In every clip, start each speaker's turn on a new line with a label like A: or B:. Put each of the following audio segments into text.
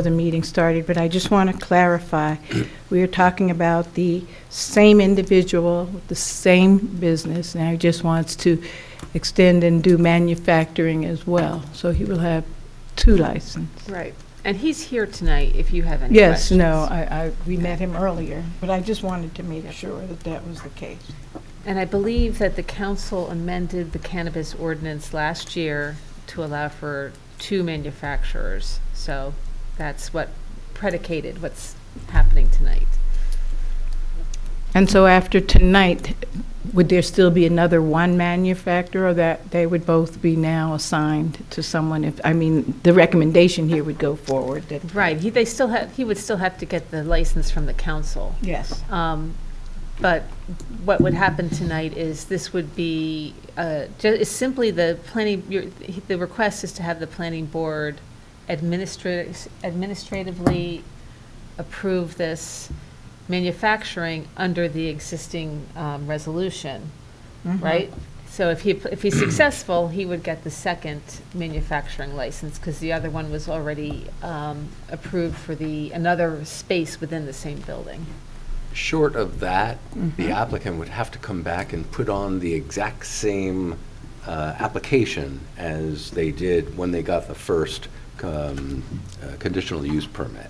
A: the meeting started, but I just want to clarify. We are talking about the same individual, the same business, now he just wants to extend and do manufacturing as well. So he will have two licenses.
B: Right. And he's here tonight if you have any
A: Yes,
B: questions.
A: no, I, I, we met him earlier, but I just wanted to make sure that that was the case.
B: And I believe that the council amended the cannabis ordinance last year to allow for two manufacturers. So that's what predicated what's happening tonight.
A: And so after tonight, would there still be another one manufacturer, or that they would both be now assigned to someone? If, I mean, the recommendation here would go forward that.
B: Right, he, they still have, he would still have to get the license from the council.
A: Yes.
B: Um, But what would happen tonight is this would be, uh, ju- is simply the planning, your- the request is to have the planning board administrat- administratively approve this manufacturing under the existing um, resolution, right? So if he, if he's successful, he would get the second manufacturing license because the other one was already um, approved for the, another space within the same building.
C: Short of that,
D: Mm-hmm.
C: the applicant would have to come back and put on the exact same uh, application as they did when they got the first um, uh, conditional use permit.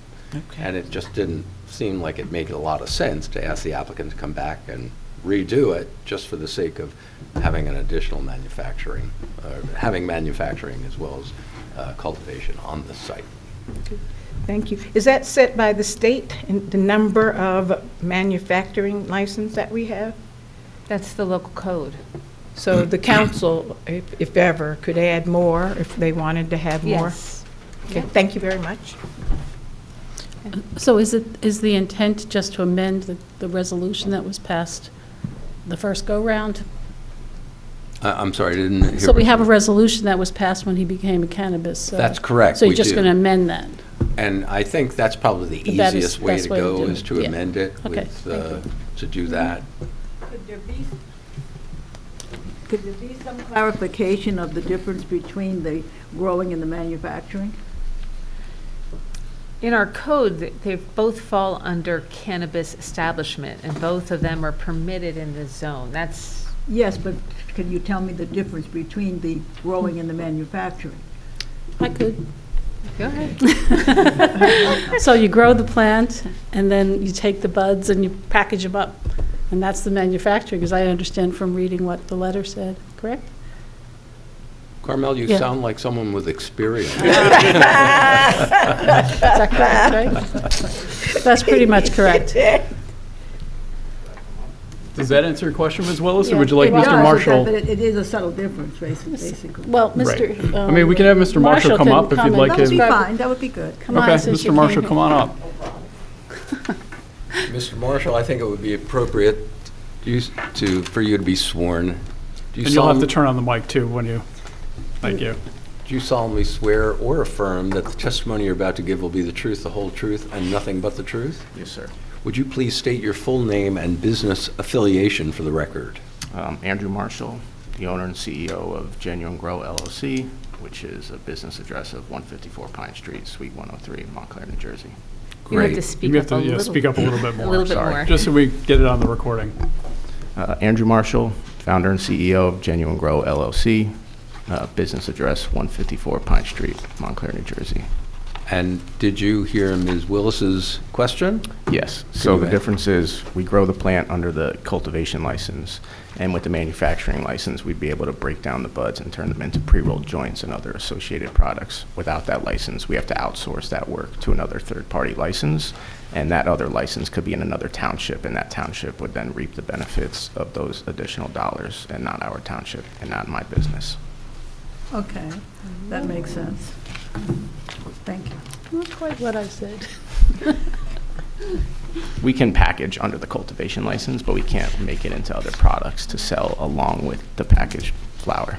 C: And it just didn't seem like it made a lot of sense to ask the applicant to come back and redo it just for the sake of having an additional manufacturing, uh, having manufacturing as well as uh, cultivation on the site.
A: Thank you. Is that set by the state, and the number of manufacturing license that we have?
B: That's the local code.
A: So the council, if if ever, could add more if they wanted to have more? Okay, thank you very much.
D: So is it, is the intent just to amend the, the resolution that was passed the first go-round?
C: I- Uh, I'm sorry, I didn't hear.
D: So
C: what
D: we have a
C: you-
D: resolution that was passed when he became a cannabis, so.
C: That's correct,
D: So
C: we
D: you're just
C: do.
D: going to amend that?
C: And I think that's probably the
D: The best-
C: easiest way
D: best
C: to
D: way to
C: go
D: do
C: is
D: it,
C: to
D: yeah.
C: amend it
D: Okay,
C: with,
D: thank
C: uh, to do that.
E: Could there be, could there be some clarification of the difference between the growing and the manufacturing?
B: In our code, th- they both fall under cannabis establishment, and both of them are permitted in the zone. That's,
E: Yes, but can you tell me the difference between the growing and the manufacturing?
D: I could.
B: go ahead.
D: So you grow the plant, and then you take the buds and you package them up, and that's the manufacturing, because I understand from reading what the letter said, correct?
C: Carmel, you
D: Yeah.
C: sound like someone with experience.
D: Is that correct, right? That's pretty much correct.
F: Does that answer your question, Ms. Willis, or would you
D: Yeah,
F: like
D: it does.
F: Mr.
E: But
F: Marshall?
E: it- it is a subtle difference, basi- basically.
D: Well,
F: Right.
D: Mr.
F: I mean, we can have Mr. Marshall come up if you'd like
E: That would be
F: him.
E: fine, that would be good.
D: Come on,
F: Okay,
D: since you
F: Mr. Marshall,
D: came.
F: come on up.
C: Mr. Marshall, I think it would be appropriate you s- to, for you to be sworn. Do you
F: And you'll have to
C: solemn-
F: turn on the mic too when you, thank you.
C: Do you solemnly swear or affirm that the testimony you're about to give will be the truth, the whole truth, and nothing but the truth?
G: Yes, sir.
C: Would you please state your full name and business affiliation for the record?
G: Um, Andrew Marshall, the owner and CEO of Genuine Grow LLC, which is a business address of 154 Pine Street, Suite 103, in Montclair, New Jersey.
B: You have to
C: Great.
B: speak
F: You
B: up
F: have
B: a
F: to,
B: little.
F: yeah, speak up a little bit more.
B: little bit
F: sorry.
B: more.
F: Just so we get it on the recording.
G: Uh, Andrew Marshall, founder and CEO of Genuine Grow LLC, uh, business address 154 Pine Street, Montclair, New Jersey.
C: And did you hear Ms. Willis's question?
G: Yes, so
C: you
G: the
C: add-
G: difference is, we grow the plant under the cultivation license, and with the manufacturing license, we'd be able to break down the buds and turn them into pre-rolled joints and other associated products. Without that license, we have to outsource that work to another third-party license, and that other license could be in another township, and that township would then reap the benefits of those additional dollars, and not our township, and not my business.
E: Okay, that makes sense. Thank you.
D: Not quite what I said.
G: We can package under the cultivation license, but we can't make it into other products to sell along with the packaged flower.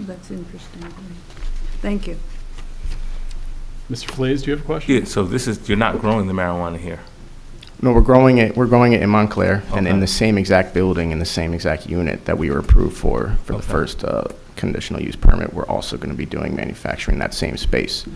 E: That's interesting. Thank you.
F: Mr. Flays, do you have a question?
H: Yeah, so this is, you're not growing the marijuana here.
G: No, we're growing it, we're growing it in Montclair and in
H: Okay.
G: the same exact building, in the same exact unit that we were approved for, for the
H: Okay.
G: first uh, conditional use permit. We're also going to be doing manufacturing in that same space.